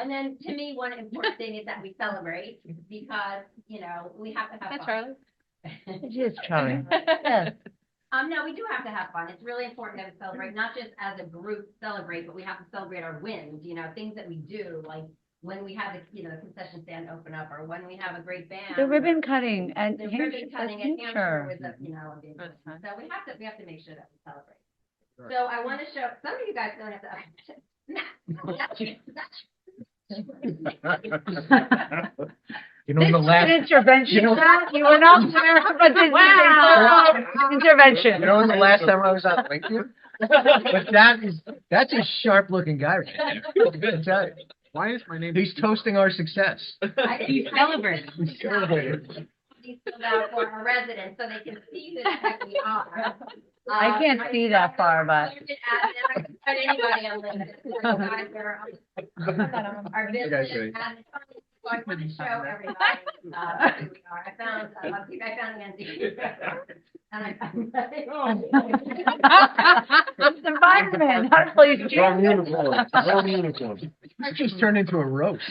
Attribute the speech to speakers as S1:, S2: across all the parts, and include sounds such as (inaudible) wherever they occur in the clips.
S1: And then to me, one important thing is that we celebrate because, you know, we have to have
S2: That's
S1: fun.
S2: Charlie.
S3: It is Charlie.
S2: (laughs)
S3: Yes.
S1: (laughs) Um, no, we do have to have fun. It's really important that we celebrate, not just as a group celebrate, but we have to celebrate our wins, you know, things that we do, like when we have, the you know, the concession stand open up or when we have a great band.
S3: The ribbon cutting and
S1: um, The
S3: Hampshire,
S1: ribbon
S3: uh,
S1: cutting at Hampshire
S3: Hampshire.
S1: was a, you know, a big
S2: That's
S1: one.
S2: fun.
S1: So we have to, we have to make sure that we celebrate.
S4: Sure.
S1: So I want to show, some of you guys don't (laughs) have to.
S4: You know, in the last,
S3: Intervention.
S4: You know-
S3: That- You were
S1: (laughs)
S3: not there, but this is
S2: Wow.
S3: a- intervention.
S4: you know, in the last time I was on LinkedIn? But that is, that's a sharp looking guy right there. I'm gonna tell you.
S5: Why is my name?
S4: He's toasting our success.
S3: (laughs)
S1: I didn't- I
S2: Celebrate.
S1: didn't think about it. These filled out for our residents, so they can see who the heck we are.
S3: (laughs) I
S1: Uh,
S3: can't
S1: my
S3: see that
S1: (laughs)
S3: far, but-
S1: Put anybody on LinkedIn. Our business,
S4: ready?
S1: and so I want to show everybody, uh, who we are. I found, I love you, I found Andy. And I found.
S3: Oh. I'm the fireman, I'm police
S6: Wrong
S3: chief.
S6: uniform, wrong uniform.
S4: I just turned into a roast.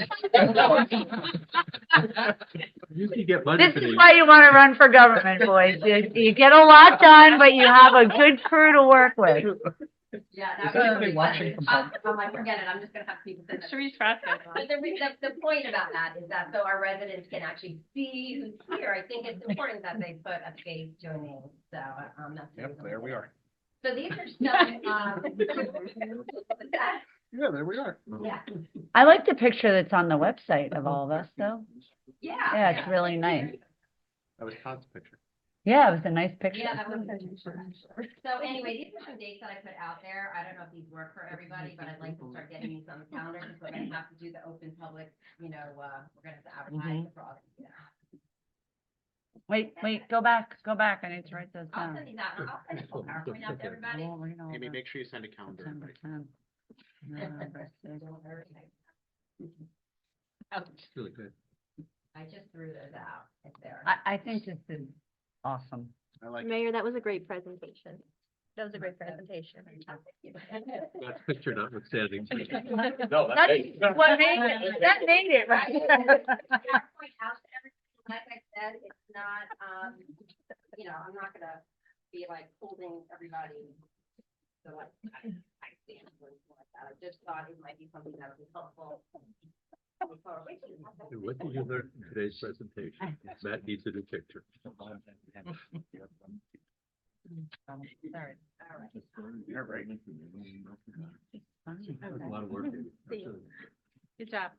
S5: You could get money
S3: This
S5: for
S3: is
S5: these.
S3: why you want to run for government, boys. You, you get a lot done, but you have a good crew to work with.
S1: (laughs) Yeah.
S4: Is
S1: that
S4: there
S1: was
S4: anybody
S1: really
S4: watching
S1: funny. Um, I'm
S4: from
S1: like, forget it, I'm just gonna have people. send that.
S2: Sharice Frasca.
S1: But the, re- the, the point about that is that so our residents can actually see who's here. I think it's important that they put a face to a name, so, um, that's. the
S4: Yep,
S1: reason
S4: there we
S1: why.
S4: are.
S1: So these are some, um. (laughs)
S5: Yeah, there we are.
S1: Yeah,
S3: I like the picture that's on the website of all of us, though.
S1: yeah.
S3: Yeah, it's really nice.
S5: That was Todd's picture.
S3: Yeah, it was a nice
S1: Yeah,
S3: picture.
S1: that was. So anyway, these are some dates that I put out there. I don't know if these work for everybody, but I'd like to start getting these on the calendar because we're gonna have to do the open public, you know, uh, we're gonna have to advertise
S3: Mm-hmm.
S1: for all. these, yeah.
S3: Wait, wait, go back, go back. I need to write those
S1: I'll
S3: down.
S1: send these out. I'll send a PowerPoint out to everybody.
S3: Oh, we're gonna order
S5: Amy, make sure you send a calendar.
S3: September
S5: invite.
S3: 10th, November (laughs) 6th.
S5: It's really good.
S1: I just threw those out if they're.
S3: I, I think this is awesome.
S5: I like,
S2: Mayor, that was a great presentation. That was a great presentation.
S5: that picture notwithstanding.
S6: No,
S3: That's what made it, that made it,
S5: (laughs)
S3: right?
S1: PowerPoint out to everybody. Like I said, it's not, um, you know, I'm not gonna be like holding everybody. So like, I, I stand or anything like that. I just thought it might be something that would be helpful.
S5: What did you learn from today's presentation? Matt needs a new picture.
S3: Sorry.
S1: All right.
S4: You're right.
S3: Fine.
S5: That was A lot of work. Amy.
S2: See you. Good job.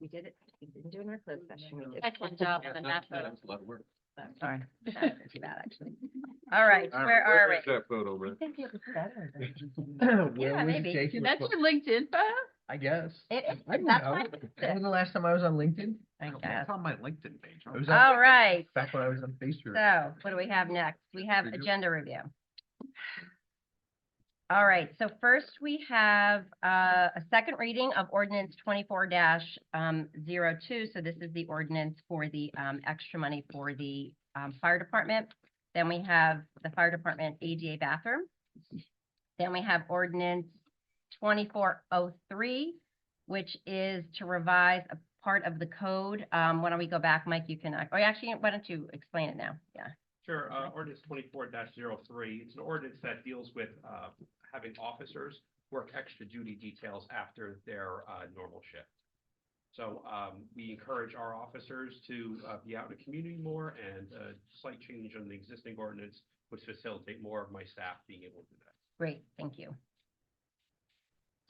S7: We did it, we didn't do it in our closed session, we did.
S2: Excellent job
S5: Yeah,
S2: on
S5: That
S2: that
S5: that
S2: photo.
S5: was a lot of work.
S3: (laughs) Sorry.
S7: That was bad, actually.
S2: All right, where are we?
S5: That photo, man.
S3: think it was better
S4: Where
S7: Yeah,
S4: was
S7: maybe.
S4: Jake? It was
S2: That's
S4: supposed-
S2: your LinkedIn photo?
S4: I guess.
S7: It- it-
S4: I don't
S7: that's
S4: know.
S7: fine.
S4: When was the last time I was on LinkedIn?
S3: I
S5: Oh,
S3: guess.
S5: It's on my LinkedIn page.
S4: It was
S1: Oh.
S4: on-
S7: All right,
S4: back when I was on Facebook.
S7: so what do we have next? We have
S5: Review.
S7: agenda review. All right, so first we have uh, a second reading of ordinance twenty-four 2 So this is the ordinance for the um, extra money for the um, fire department. Then we have the fire department ADA bathroom. Then we have ordinance twenty-four oh three, which is to revise a part of the code. Um, why don't we go back, Mike, you can, oh, actually, why don't you explain it now? Yeah.
S8: Sure, uh, ordinance twenty-four 3 it's an ordinance that deals with, uh, having officers work extra duty details after their, uh, normal shift. So, um, we encourage our officers to, uh, be out in the community more and a slight change in the existing ordinance would facilitate more of my staff being able to do that.
S7: Great, thank you.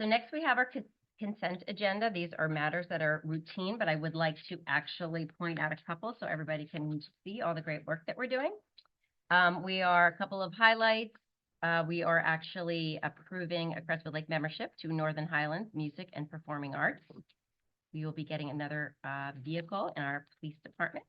S7: So next we have our con- consent agenda. These are matters that are routine, but I would like to actually point out a couple so everybody can see all the great work that we're doing. Um, we are a couple of highlights. Uh, we are actually approving a Crestwood Lake membership to Northern Highlands Music and Performing Arts. We will be getting another, uh, vehicle in our police department.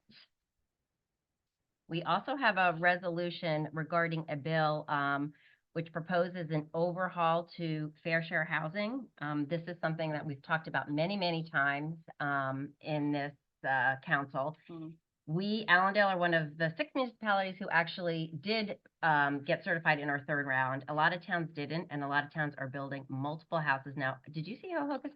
S7: We also have a resolution regarding a bill, um, which proposes an overhaul to fair share housing. Um, this is something that we've talked about many, many times, um, in this, uh, council.
S2: Mhm.
S7: We, Allendale are one of the six municipalities who actually did, um, get certified in our third round. A lot of towns didn't, and a lot of towns are building multiple houses now. Did you see how Hohokus